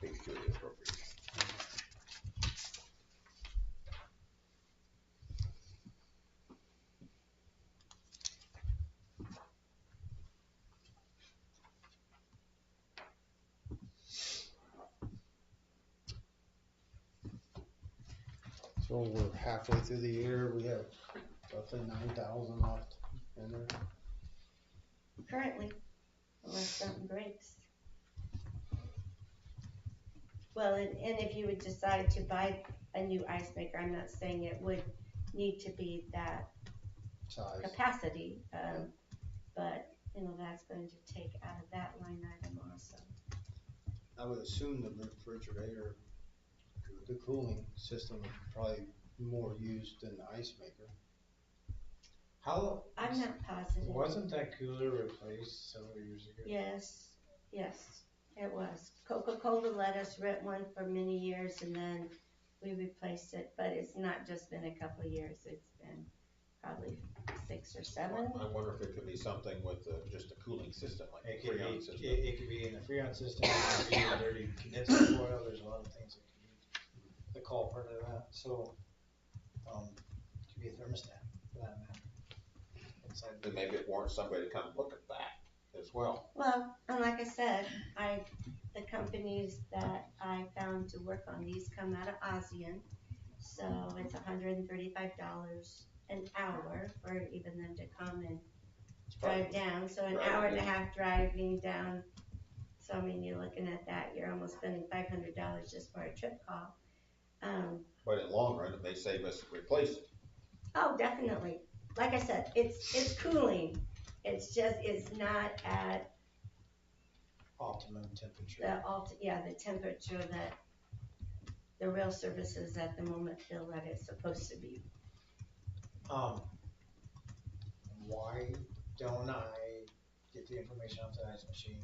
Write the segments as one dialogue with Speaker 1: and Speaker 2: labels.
Speaker 1: security appropriations.
Speaker 2: So we're halfway through the year, we have roughly nine thousand left in there.
Speaker 3: currently, unless something breaks. Well, and, and if you would decide to buy a new ice maker, I'm not saying it would need to be that
Speaker 2: size.
Speaker 3: capacity, um, but, you know, that's going to take out of that line item also.
Speaker 2: I would assume the refrigerator, the cooling system is probably more used than the ice maker.
Speaker 1: How,
Speaker 3: I'm not positive.
Speaker 1: wasn't that cooler replaced several years ago?
Speaker 3: Yes, yes, it was. Coca-Cola let us rent one for many years and then we replaced it, but it's not just been a couple of years, it's been probably six or seven.
Speaker 4: I wonder if it could be something with the, just a cooling system, like
Speaker 1: It
Speaker 4: a
Speaker 1: could
Speaker 4: Freon
Speaker 1: be,
Speaker 4: system.
Speaker 1: it, it could be in the Freon system, it could be in dirty condenser foil, there's a lot of things that could be the culprit of that, so, um, it could be a thermostat for that matter. Inside the-
Speaker 4: And maybe it warrants somebody to come look at that as well.
Speaker 3: Well, and like I said, I, the companies that I found to work on these come out of ASEAN. So it's hundred and thirty-five dollars an hour for even them to come and
Speaker 4: It's probably-
Speaker 3: drive down, so an
Speaker 4: Right,
Speaker 3: hour and a
Speaker 4: yeah.
Speaker 3: half driving down. So I mean, you're looking at that, you're almost spending five hundred dollars just for a trip call. Um,
Speaker 4: But in the long run, it may save us replace it.
Speaker 3: oh, definitely, like I said, it's, it's cooling, it's just, it's not at
Speaker 1: optimum temperature.
Speaker 3: the alt, yeah, the temperature that the rail services at the moment feel that it's supposed to be.
Speaker 1: Um, why don't I get the information off the ice machine?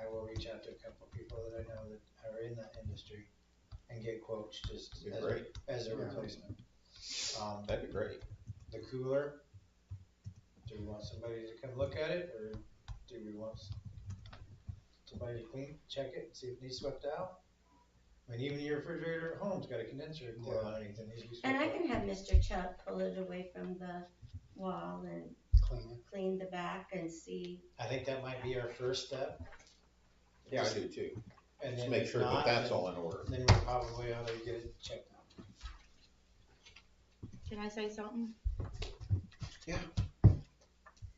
Speaker 1: I will reach out to a couple of people that I know that are in that industry and get quotes just
Speaker 4: It'd be
Speaker 1: as a,
Speaker 4: great,
Speaker 1: as a
Speaker 2: Yeah.
Speaker 1: replacement. Um,
Speaker 4: that'd be great.
Speaker 1: the cooler, do we want somebody to come look at it, or do we want s- somebody to clean, check it, see if it needs swept out? I mean, even your refrigerator at home's got a condenser coil
Speaker 2: Yeah.
Speaker 1: underneath it, needs to be
Speaker 3: And
Speaker 1: swept
Speaker 3: I
Speaker 1: out.
Speaker 3: can have Mr. Chuck pull it away from the wall and
Speaker 2: Clean
Speaker 3: clean the back and see
Speaker 1: I think that might be our first step.
Speaker 4: Yeah, I do too.
Speaker 1: And
Speaker 4: Just
Speaker 1: then
Speaker 4: make
Speaker 1: if
Speaker 4: sure that
Speaker 1: not,
Speaker 4: that's
Speaker 1: then-
Speaker 4: all in order.
Speaker 1: Then we probably ought to get it checked out.
Speaker 5: Can I say something?
Speaker 2: Yeah.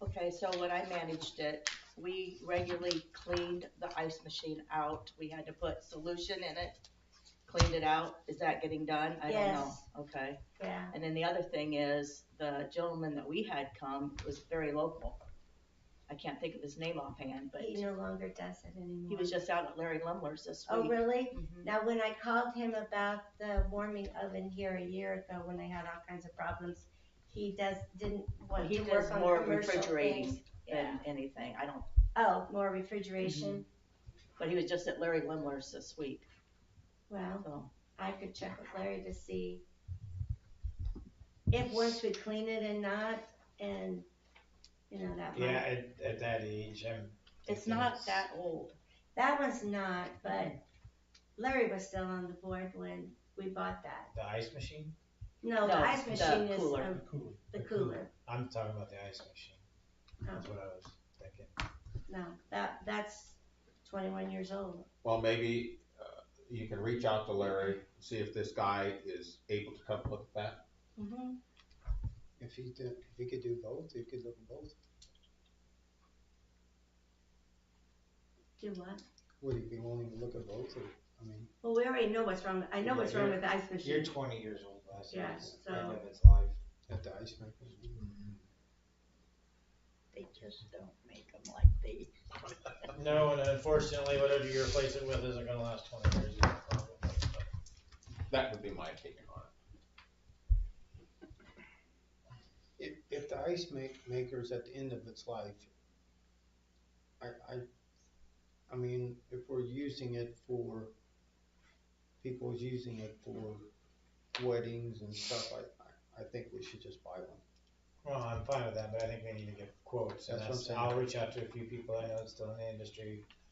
Speaker 5: Okay, so when I managed it, we regularly cleaned the ice machine out. We had to put solution in it, cleaned it out. Is that getting done? I don't know.
Speaker 3: Yes.
Speaker 5: Okay.
Speaker 3: Yeah,
Speaker 5: And then the other thing is, the gentleman that we had come was very local. I can't think of his name offhand, but
Speaker 3: he no longer does it anymore.
Speaker 5: he was just out at Larry Lumler's this
Speaker 3: Oh,
Speaker 5: week.
Speaker 3: really?
Speaker 5: Mhm.
Speaker 3: Now, when I called him about the warming oven here a year ago, when they had all kinds of problems, he does, didn't want
Speaker 5: He
Speaker 3: to work
Speaker 5: does
Speaker 3: on
Speaker 5: more
Speaker 3: commercial
Speaker 5: refrigerating
Speaker 3: things. Yeah.
Speaker 5: than anything. I don't,
Speaker 3: Oh, more refrigeration?
Speaker 5: but he was just at Larry Lumler's this week, Mm-hmm.
Speaker 3: Well,
Speaker 5: so.
Speaker 3: I could check with Larry to see if once we clean it and not, and, you know, that
Speaker 1: Yeah,
Speaker 3: might,
Speaker 1: at, at that age, I'm.
Speaker 5: It's
Speaker 1: thinking
Speaker 5: not that old.
Speaker 3: that one's not, but Larry was still on the board when we bought that.
Speaker 1: The ice machine?
Speaker 3: No, the
Speaker 5: No,
Speaker 3: ice
Speaker 5: the
Speaker 3: machine is,
Speaker 5: cooler.
Speaker 3: um,
Speaker 1: cooler.
Speaker 3: the cooler,
Speaker 1: I'm talking about the ice machine,
Speaker 3: Oh.
Speaker 5: Mm-hmm.
Speaker 1: that's what I was thinking.
Speaker 3: No, that, that's twenty-one years old.
Speaker 4: Well, maybe, uh, you can reach out to Larry, see if this guy is able to come look at that.
Speaker 3: Mm-hmm.
Speaker 2: it. If he did, if he could do both, he could look at both.
Speaker 3: Do what?
Speaker 2: Would he be willing to look at both or, I mean,
Speaker 3: Well, we already know what's wrong, I know what's wrong with the ice
Speaker 1: You're
Speaker 3: machine.
Speaker 1: twenty years old, last
Speaker 3: Yeah,
Speaker 1: year's
Speaker 3: so-
Speaker 1: end of its life.
Speaker 2: at the ice maker?
Speaker 5: They just don't make them like they.
Speaker 1: No, and unfortunately, whatever you replace it with isn't gonna last twenty years. either, probably.
Speaker 4: That would be my opinion on it.
Speaker 2: If, if the ice make, maker's at the end of its life, I, I, I mean, if we're using it for, people's using it for weddings and stuff, I, I, I think we should just buy one.
Speaker 1: Well, I'm fine with that, but I think we need to get quotes, and
Speaker 2: That's what I'm
Speaker 1: that's,
Speaker 2: saying.
Speaker 1: I'll reach out to a few people I know that's still in the industry,